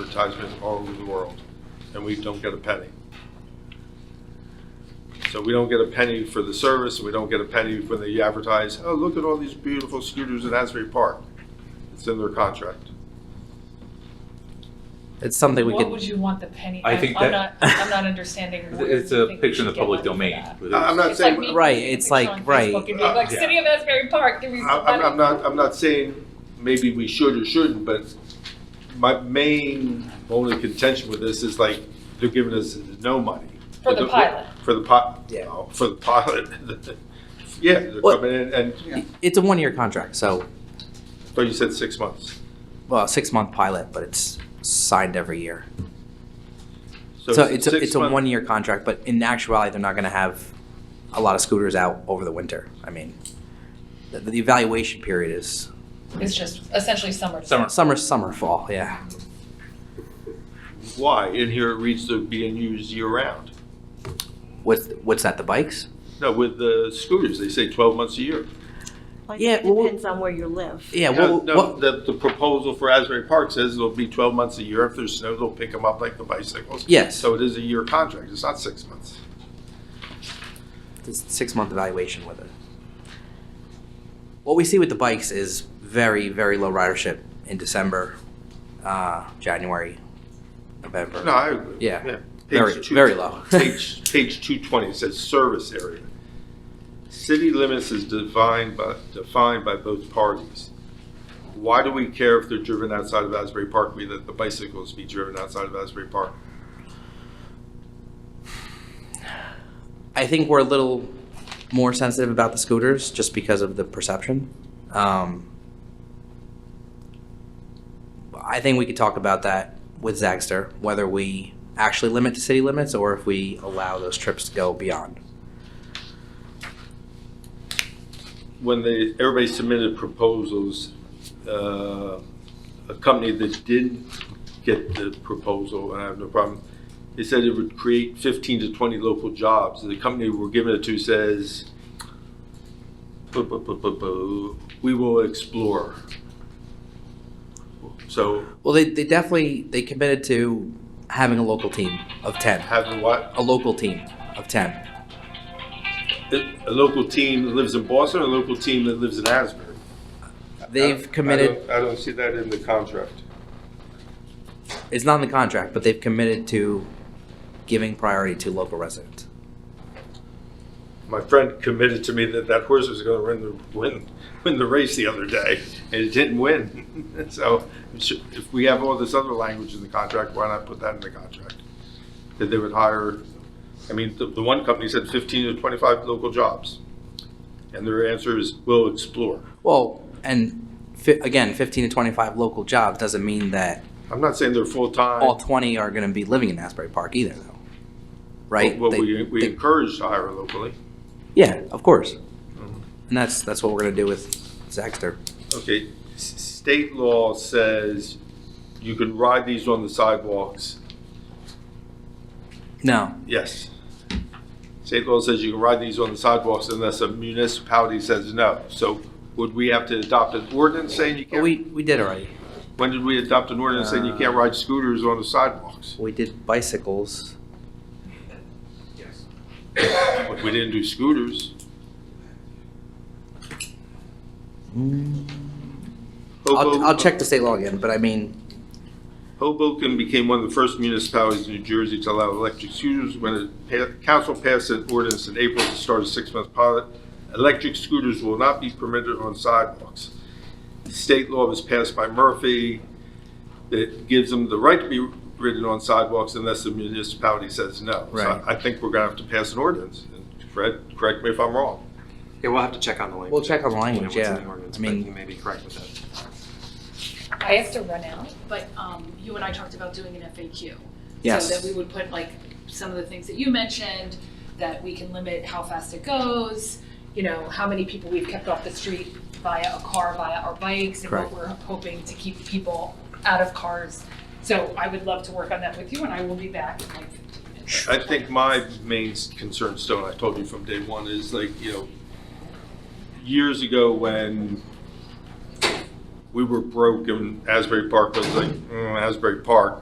advertisements all over the world, and we don't get a penny. So we don't get a penny for the service, and we don't get a penny when they advertise, oh, look at all these beautiful scooters in Asbury Park. It's in their contract. It's something we What could, would you want the penny? I I'm- think I'm that- not, I'm not understanding. what It's you a think we picture in the should get public money for domain. that. with I- Uh, I'm it. not It's like saying, me I'm, Right, posting a it's picture like- on right. Facebook and being like, Yeah. City of Asbury Park, give me some I'm I'm money. not, I'm not saying maybe we should or shouldn't, but my main only contention with this is like, they're giving us no money. For the pilot. For the pi, Yeah. oh, for the pilot. Yeah, they're Well- coming in, and, it's a one-year contract, so, but you said six months. well, a six-month pilot, but it's signed every year. So it's it's, a- six it's a month- one-year contract, but in actuality, they're not gonna have a lot of scooters out over the winter. I mean, the, the evaluation period is It's just essentially summer. Summer. summer, summer, fall, yeah. Why? In here it reads they're being used year-round. What's, what's that, the bikes? No, with the scooters, they say 12 months a year. Like, Yeah, it well- depends on where you live. Yeah, No, what, no, what, the, the proposal for Asbury Park says it'll be 12 months a year. If there's snow, they'll pick them up like the bicycles. Yes. So it is a year contract. It's not six months. this six-month evaluation with it. What we see with the bikes is very, very low ridership in December, uh, January, November. No, I agree. Yeah. Page Very- two- very low. Page, page 220, it says service area. City limits is defined by, defined by both parties. Why do we care if they're driven outside of Asbury Park? We let the bicycles be driven outside of Asbury Park. I think we're a little more sensitive about the scooters just because of the perception. Um, I think we could talk about that with Zagster, whether we actually limit to city limits or if we allow those trips to go beyond. when they, everybody submitted proposals, uh, a company that did get the proposal, and I have no problem, they said it would create 15 to 20 local jobs. The company we're giving it to says, "Bu- bu- bu- bu- bu, we will explore. So Well, they, they definitely they committed to having a local team of ten, having what, a local team of ten. a local team that lives in Boston, or a local team that lives in Asbury? I- I They've don't- committed. I don't see that in the contract. It's not in the contract, but they've committed to giving priority to local residents. my friend committed to me that that horse was going to win the win win the race the other day, and it didn't win. so if we have all this other language in the contract, why not put that in the contract? That they would hire. I mean, the, the one company said 15 to 25 local jobs, and their answer is we'll explore. Well, and fi- again, fifteen to twenty-five local jobs doesn't mean that I'm not saying they're full time. all twenty are going to be living in Asbury Park either, though. Right? Well, They- we, we they- encourage to hire locally. yeah, of course. Mm-hmm. And that's that's what we're going to do with Zaxter. Okay, s- state law says you can ride these on the sidewalks No, Yes. State law says you can ride these on the sidewalks unless a municipality says no. So would we have to adopt an ordinance saying you but can't? we Uh, we did already. When did we adopt an ordinance saying you can't ride scooters on the sidewalks? We did bicycles. We didn't do scooters. I'll, Mm. Hobo- I'll check the state law again, but I mean, Hoboken became one of the first municipalities in New Jersey to allow electric scooters when the pa- council passed an ordinance in April to start a six-month pilot. Electric scooters will not be permitted on sidewalks. State law was passed by Murphy that gives them the right to be ridden on sidewalks unless the municipality says no. So Right. I I think we're gonna have to pass an ordinance. And Fred, correct me if I'm wrong. Yeah, we'll have to check on the language. We'll check on the language, You know, what's in yeah. the ordinance, I but mean- you may be correct with that. I have to run out. But um, you and I talked about doing an FAQ. Yes. So that we would put like some of the things that you mentioned, that we can limit how fast it goes, you know, how many people we've kept off the street via a car, via our bikes, and Correct. what we're hoping to keep people out of cars. So I would love to work on that with you, and I will be back in like fifteen minutes. I think my main concern, Stone, I told you from day one, is like, you know, years ago when we were broke and Asbury Park was like, mm, Asbury Park.